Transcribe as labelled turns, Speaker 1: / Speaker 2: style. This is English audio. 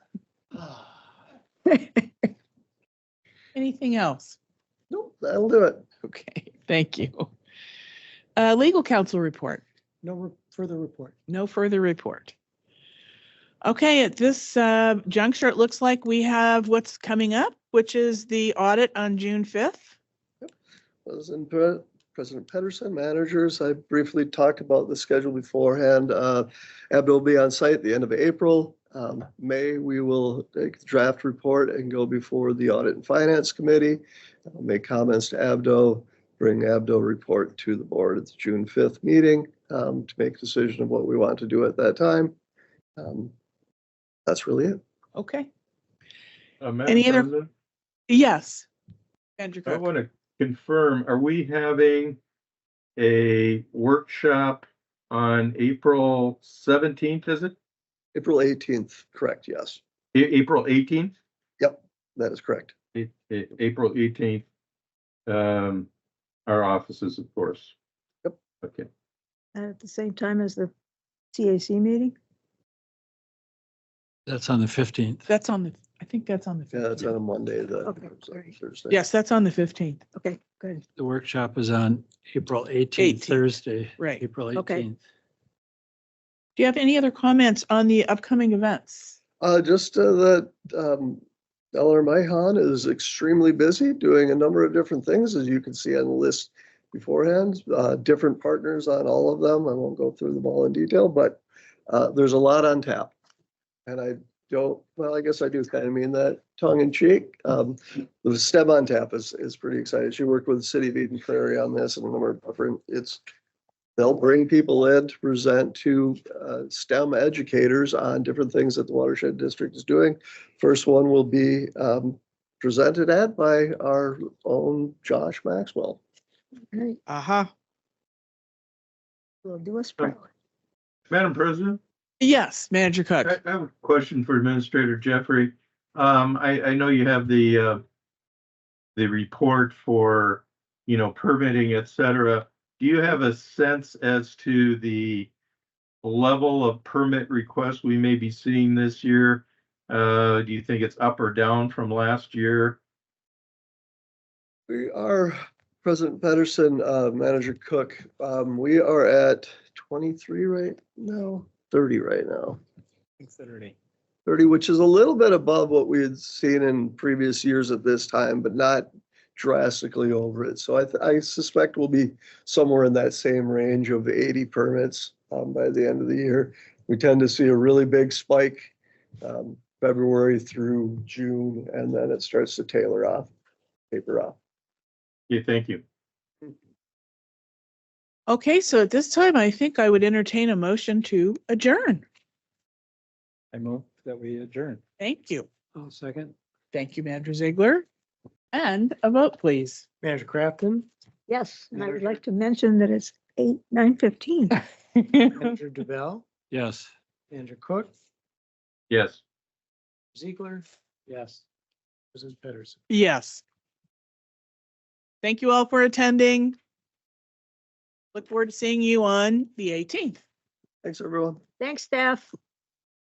Speaker 1: Anything else?
Speaker 2: Nope, that'll do it.
Speaker 1: Okay, thank you. Uh, legal counsel report.
Speaker 2: No re- further report.
Speaker 1: No further report. Okay, at this uh, juncture, it looks like we have what's coming up, which is the audit on June 5th.
Speaker 2: President Pe- President Pedersen, managers, I briefly talked about the schedule beforehand. Uh, Abdo will be on site at the end of April. Um, May, we will take the draft report and go before the Audit and Finance Committee. I'll Make comments to Abdo, bring Abdo report to the board at the June 5th meeting um, to make decision of what we want to do at that time. Um, That's really it.
Speaker 1: Okay.
Speaker 3: Uh,
Speaker 1: Any
Speaker 3: Madam
Speaker 1: other-
Speaker 3: President,
Speaker 1: Yes. Andrew
Speaker 3: I
Speaker 1: Cook.
Speaker 3: want to confirm, are we having a workshop on April seventeenth, is it?
Speaker 2: April 18th, correct, yes.
Speaker 3: A- April eighteenth?
Speaker 2: That is correct.
Speaker 3: April eighteenth. Um, our offices, of course.
Speaker 2: Yep.
Speaker 3: Okay,
Speaker 4: And at the same time as the CAC meeting?
Speaker 5: That's on the fifteenth.
Speaker 1: That's on the, I think that's on the
Speaker 2: Yeah, it's
Speaker 1: 15th.
Speaker 2: on a Monday, the
Speaker 4: Okay, great.
Speaker 2: Thursday.
Speaker 1: Yes, that's on the 15th.
Speaker 4: Okay, good.
Speaker 5: The workshop is on April eighteenth,
Speaker 1: 18th,
Speaker 5: Thursday.
Speaker 1: right.
Speaker 5: April
Speaker 4: Okay.
Speaker 5: eighteenth.
Speaker 1: Do you have any other comments on the upcoming events?
Speaker 2: Uh, just uh, that, um, Eleanor Mahon is extremely busy doing a number of different things, as you can see on the list beforehand, uh, different partners on all of them. I won't go through them all in detail, but, uh, there's a lot on tap. And I don't, well, I guess I do kind of mean that tongue in cheek. Um, the STEM on tap is, is pretty exciting. She worked with the city of Eden Prairie on this and a number of different, it's, they'll bring people in to present to uh, STEM educators on different things that the watershed district is doing. First one will be um, presented at by our own Josh Maxwell.
Speaker 4: Great.
Speaker 1: Uh-huh.
Speaker 4: We'll do a spread.
Speaker 3: Madam President?
Speaker 1: Yes, Manager
Speaker 3: I
Speaker 1: Cook.
Speaker 3: I have a question for Administrator Jeffrey. Um, I, I know you have the, uh, the report for, you know, permitting, et cetera. Do you have a sense as to the level of permit requests we may be seeing this year? Uh, do you think it's up or down from last year?
Speaker 2: We are, President Pedersen, uh, Manager Cook, um, we are at 23 right now, 30 right now. 30, which is a little bit above what we had seen in previous years at this time, but not drastically over it. So I, th- I suspect we'll be somewhere in that same range of 80 permits um, by the end of the year. We tend to see a really big spike um, February through June, and then it starts to tailor off, taper off.
Speaker 3: Okay, thank you.
Speaker 1: Okay, so at this time, I think I would entertain a motion to adjourn.
Speaker 5: I move that we adjourn.
Speaker 1: Thank you.
Speaker 5: I'll second.
Speaker 1: Thank you, Manager Ziegler. And a vote, please.
Speaker 5: Manager Crafton?
Speaker 4: Yes, and I would like to mention that it's eight, nine fifteen.
Speaker 6: Andrew DeBell,
Speaker 5: Yes.
Speaker 6: Andrew Cook,
Speaker 3: Yes.
Speaker 6: Ziegler. Yes. President Pedersen.
Speaker 1: Yes. Thank you all for attending. Look forward to seeing you on the eighteenth.
Speaker 2: Thanks, everyone.
Speaker 4: Thanks, staff.